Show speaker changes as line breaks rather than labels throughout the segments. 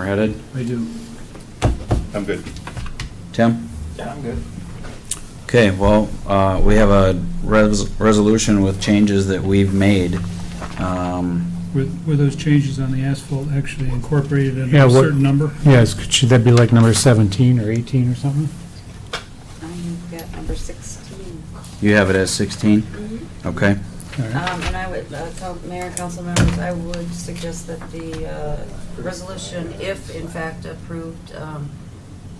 we're headed.
I do.
I'm good.
Tim?
Yeah, I'm good.
Okay, well, uh, we have a res- resolution with changes that we've made. Um,
Were, were those changes on the asphalt actually incorporated in
Yeah,
a
what-
certain number?
Yes, could- should that be like number 17 or 18 or something?
I've got number 16.
You have it as 16?
Um,
Mm-hmm.
Okay.
All right.
And I would, uh, tell Mayor and council members, I would suggest that the uh, resolution, if in fact approved, um,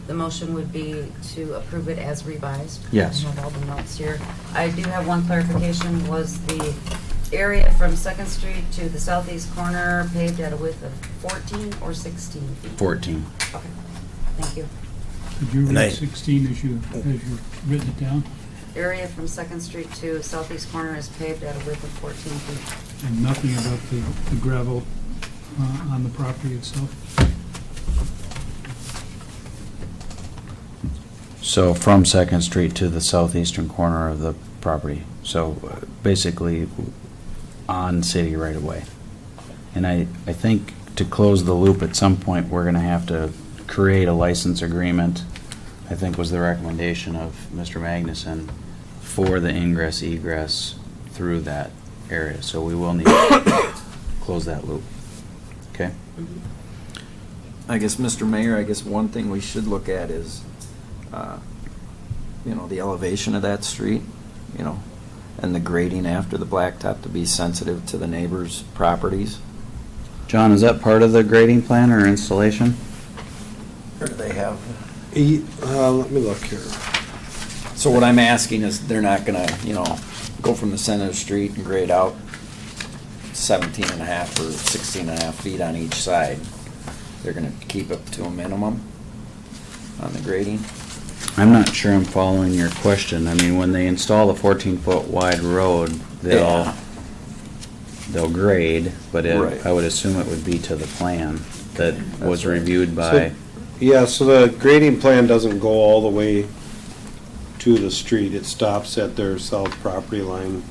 the motion would be to approve it as revised.
Yes.
I have all the notes here. I do have one clarification, was the area from Second Street to the southeast corner paved at a width of 14 or 16 feet?
14.
Okay, thank you.
Did you
And I-
read 16 as you, as you written it down?
Area from Second Street to southeast corner is paved at a width of 14 feet.
And nothing about the the gravel uh, on the property itself?
So from Second Street to the southeastern corner of the property. So uh, basically on city right away. And I, I think to close the loop at some point, we're going to have to create a license agreement, I think was the recommendation of Mr. Magnuson, for the ingress egress through that area. So we will need to close that loop. Okay?
I guess, Mr. Mayor, I guess one thing we should look at is, uh, you know, the elevation of that street, you know, and the grading after the blacktop to be sensitive to the neighbors' properties.
John, is that part of the grading plan or installation?
Or do they have?
E- uh, Let me look here.
So what I'm asking is, they're not gonna, you know, go from the center of the street and grade out 17 and a half or 16 and a half feet on each side. They're gonna keep it to a minimum on the grading?
I'm not sure I'm following your question. I mean, when they install the fourteen foot wide road, they'll,
Yeah.
they'll grade, but it,
Right.
I would assume it would be to the plan that was
That's right.
reviewed by,
Yeah, so the grading plan doesn't go all the way to the street. It stops at their south property line.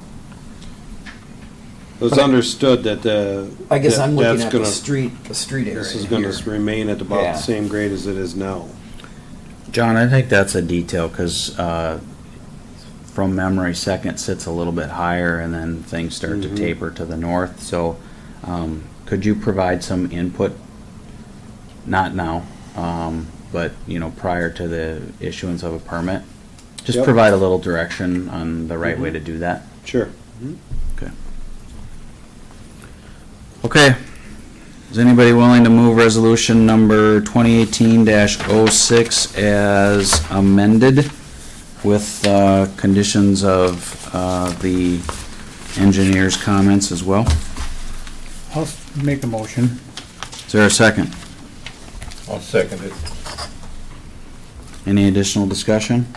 It was understood that the.
I guess I'm
that-
looking
that's
at the
gonna-
street, the street area
This is gonna
here.
remain at about
Yeah.
the same grade as it is now.
John, I think that's a detail, cause, uh, from memory, second sits a little bit higher and then things start to
Mhm.
taper to the north, so, um, could you provide some input? Not now, um, but, you know, prior to the issuance of a permit? Just
Yep.
provide a little direction on the right way to do that?
Sure.
Okay. Is anybody willing to move resolution number twenty eighteen 6 as amended with, uh, conditions of, uh, the engineer's comments as well?
I'll s- make a motion.
Is there a second?
I'll second it.
Any additional discussion?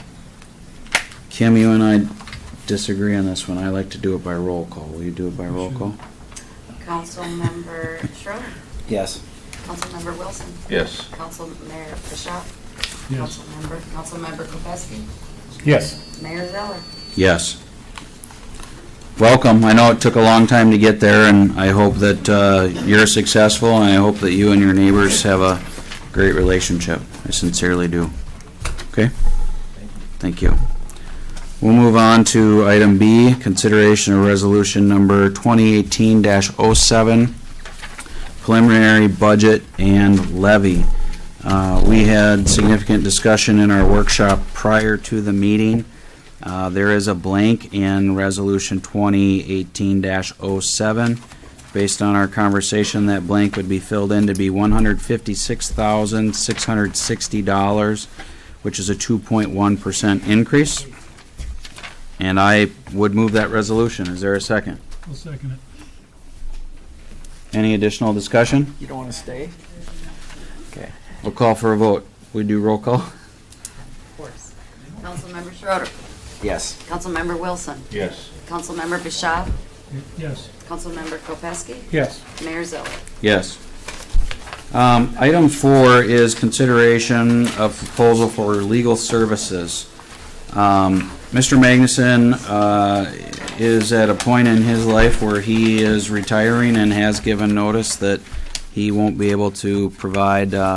Kim, you and I disagree on this one. I like to do it by roll call. Will you do it by roll call?
Councilmember Schroeder,
Yes.
Councilmember Wilson,
Yes.
Council Mayor Bishop,
Yes.
Councilmember, Councilmember Kropaski,
Yes.
Mayor Zeller.
Yes. Welcome. I know it took a long time to get there, and I hope that uh, you're successful, and I hope that you and your neighbors have a great relationship. I sincerely do. Okay? Thank you. We'll move on to item B, consideration of resolution number 2018-07, preliminary budget and levy. Uh, We had significant discussion in our workshop prior to the meeting. Uh, There is a blank in Resolution 2018-07. Based on our conversation, that blank would be filled in to be $156,660, which is a 2.1% increase. And I would move that resolution. Is there a second?
I'll second it.
Any additional discussion?
You don't want to stay?
We'll call for a vote. We do roll call?
Of course. Councilmember Schroeder,
Yes.
Councilmember Wilson,
Yes.
Councilmember Bishop,
Yes.
Councilmember Kropaski,
Yes.
Mayor Zeller.
Yes. Um, Item four is consideration of proposal for legal services. Um, Mr. Magnuson uh, is at a point in his life where he is retiring and has given notice that He won't be able to provide, uh,